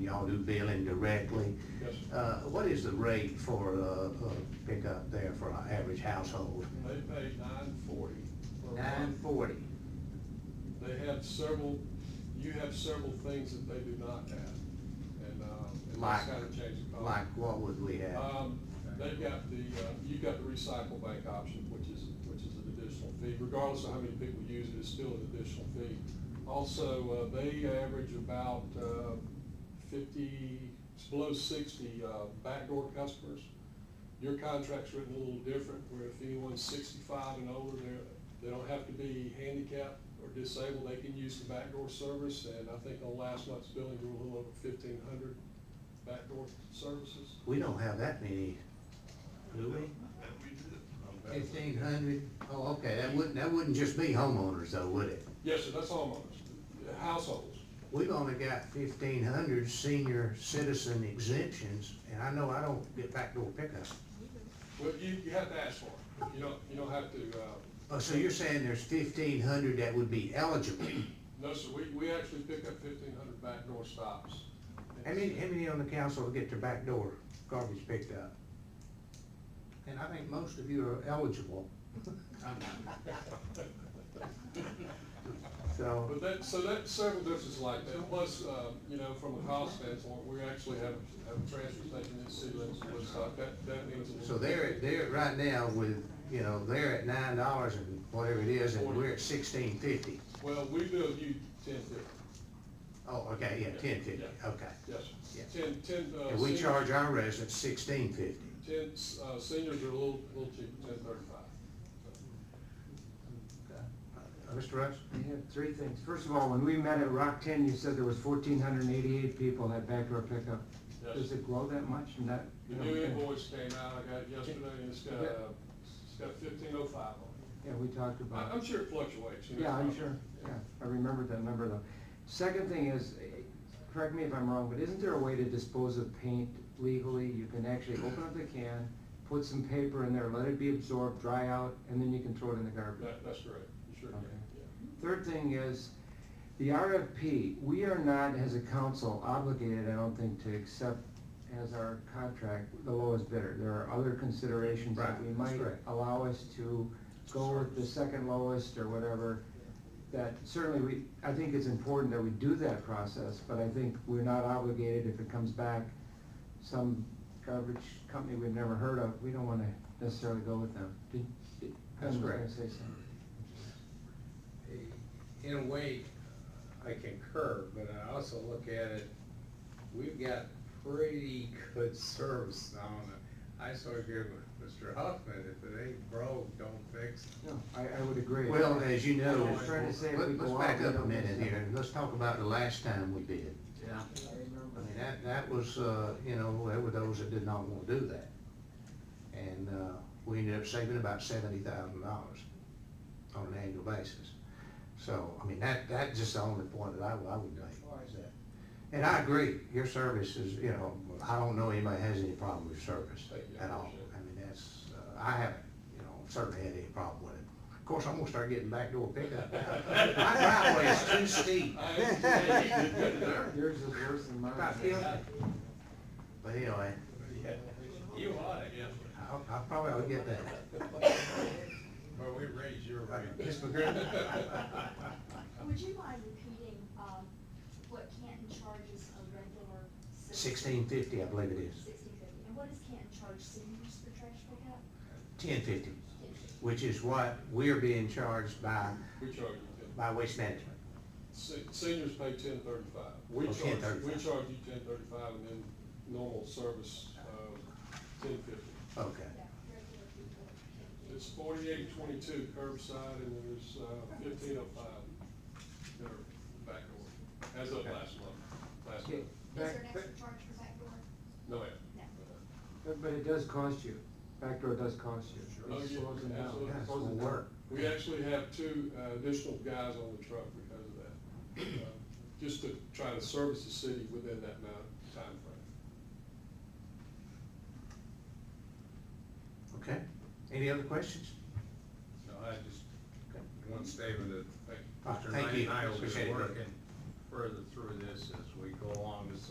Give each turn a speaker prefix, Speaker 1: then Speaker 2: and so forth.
Speaker 1: y'all do billing directly.
Speaker 2: Yes, sir.
Speaker 1: Uh, what is the rate for, uh, uh, pickup there for our average household?
Speaker 2: They paid nine forty for a
Speaker 1: Nine
Speaker 2: month.
Speaker 1: forty.
Speaker 2: They have several, you have several things that they do not have, and, um, and
Speaker 1: Like-
Speaker 2: that's kind of changed the cost.
Speaker 1: Like, what would we have?
Speaker 2: Um, they've got the, uh, you've got the recycle bank option, which is, which is an additional fee, regardless of how many people use it, it's still an additional fee. Also, uh, they average about, uh, fifty, it's below sixty, uh, backdoor customers. Your contract's written a little different, where if anyone's sixty-five and older, they're, they don't have to be handicapped or disabled, they can use the backdoor service, and I think on last month's billing, we were a little over fifteen hundred backdoor services.
Speaker 1: We don't have that many, do we? Fifteen hundred? Oh, okay, that wouldn't, that wouldn't just be homeowners though, would it?
Speaker 2: Yes, sir, that's homeowners, households.
Speaker 1: We've only got fifteen hundred senior citizen exemptions, and I know I don't get backdoor pickup.
Speaker 2: Well, you, you have to ask for it. You don't, you don't have to, uh,
Speaker 1: Oh, so you're saying there's fifteen hundred that would be eligible?
Speaker 2: no, sir, we, we actually pick up fifteen hundred backdoor stops.
Speaker 1: How many, how many on the council will get their backdoor garbage picked up? And I think most of you are eligible, so.
Speaker 2: But that, so that, several differences like that, plus, uh, you know, from a cost standpoint, we actually have, have a transfer station in the city limits, of Woodstock. that, that means. a little
Speaker 1: So they're, at- they're at right now with, you know, they're at nine dollars and whatever it is, and we're at sixteen fifty.
Speaker 2: Well, we bill you ten fifty,
Speaker 1: Oh, okay, yeah, ten fifty, okay.
Speaker 2: yes,
Speaker 1: Yeah.
Speaker 2: sir. ten, ten, uh.
Speaker 1: And we
Speaker 2: seniors-
Speaker 1: charge our residents sixteen fifty.
Speaker 2: Ten, uh, seniors are a little, little cheaper, ten thirty-five.
Speaker 1: Mr. Uh, Russ?
Speaker 3: I have three things. First of all, when we met at Rock Ten, you said there was fourteen hundred and eighty-eight people at backdoor pickup.
Speaker 2: Yes.
Speaker 3: Does it grow that much and that?
Speaker 2: The new invoice came out, I got it yesterday, and it's got, uh, it's got fifteen oh five on it.
Speaker 3: Yeah, we talked about.
Speaker 2: I- I'm sure it fluctuates. you know.
Speaker 3: Yeah, I'm sure, yeah, I remember that number though. Second thing is, eh, correct me if I'm wrong, but isn't there a way to dispose of paint legally? You can actually open up the can, put some paper in there, let it be absorbed, dry out, and then you can throw it in the garbage.
Speaker 2: That, that's correct, you sure can,
Speaker 3: Okay.
Speaker 2: yeah.
Speaker 3: Third thing is, the RFP, we are not, as a council, obligated, I don't think, to accept as our contract the lowest bidder. There are other considerations that
Speaker 1: Right,
Speaker 3: we
Speaker 1: that's
Speaker 3: might
Speaker 1: right.
Speaker 3: allow us to go with the second lowest or whatever. That certainly, we, I think it's important that we do that process, but I think we're not obligated if it comes back some garbage company we've never heard of, we don't wanna necessarily go with them. Did- did-
Speaker 1: That's
Speaker 3: Ken was
Speaker 1: correct.
Speaker 3: gonna say something.
Speaker 4: in a way, I concur, but I also look at it, we've got pretty good service now. and I sort of agree with Mr. Huffman, if it ain't broke, don't fix it.
Speaker 3: No, I, I would agree.
Speaker 1: Well, as you know,
Speaker 3: I was trying to say if we
Speaker 1: let- let's
Speaker 3: go
Speaker 1: back
Speaker 3: out, we
Speaker 1: up a
Speaker 3: don't
Speaker 1: minute
Speaker 3: miss
Speaker 1: here, and let's talk about the last time we did.
Speaker 5: Yeah.
Speaker 1: I mean, that, that was, uh, you know, there were those that did not want to do that. And, uh, we ended up saving about seventy thousand dollars on an annual basis. So, I mean, that, that's just the only point that I, I would make. is that. And I agree, your service is, you know, I don't know anybody has any problem with your service
Speaker 2: Thank you, I
Speaker 1: at all.
Speaker 2: appreciate it.
Speaker 1: I mean, that's, uh, I haven't, you know, certainly had any problem with it. Of course, I'm gonna start getting backdoor pickup. My driveway is too steep.
Speaker 2: I actually- you did good there.
Speaker 3: Yours is worse than mine.
Speaker 1: About fifty. But anyway.
Speaker 2: You ought to, yeah.
Speaker 1: I'll, I'll probably will get that.
Speaker 4: But we raise your rate.
Speaker 1: Ms. McGriff?
Speaker 6: Would you mind repeating, um, what Canton charges a regular citizen?
Speaker 1: Sixteen fifty, I believe it is.
Speaker 6: Sixteen fifty, and what does Canton charge seniors for trash pickup?
Speaker 1: Ten fifty, which is what we're being charged by,
Speaker 2: We charge you ten,
Speaker 1: by Waste Management.
Speaker 2: se- seniors pay ten thirty-five. We
Speaker 1: Oh,
Speaker 2: charge, we
Speaker 1: 10.35.
Speaker 2: charge you ten thirty-five, and then normal service, uh, ten fifty.
Speaker 1: Okay.
Speaker 6: Yeah, regular people. can
Speaker 2: It's forty-eight twenty-two curbside, and there's fifteen oh five that are back order, as of last month, last month.
Speaker 3: Okay,
Speaker 6: get- Is
Speaker 3: back-
Speaker 6: there an
Speaker 3: back-
Speaker 6: extra charge for backdoor?
Speaker 2: No, ma'am.
Speaker 6: No.
Speaker 3: But, but it does cost you. Backdoor does cost you.
Speaker 2: Oh,
Speaker 3: It
Speaker 2: yeah,
Speaker 3: slows them down.
Speaker 2: absolutely.
Speaker 1: Yeah, it's
Speaker 3: Slows
Speaker 1: gonna
Speaker 3: them down.
Speaker 1: work.
Speaker 2: We actually have two uh, additional guys on the truck because of that, uh, just to try to service the city within that amount of timeframe.
Speaker 1: Okay. Any other questions?
Speaker 4: No, I just, one statement that
Speaker 2: Thank you.
Speaker 1: Ah,
Speaker 4: Mr.
Speaker 1: thank you.
Speaker 4: Knight and I will be
Speaker 1: Appreciate it.
Speaker 4: working further through this as we go along. This is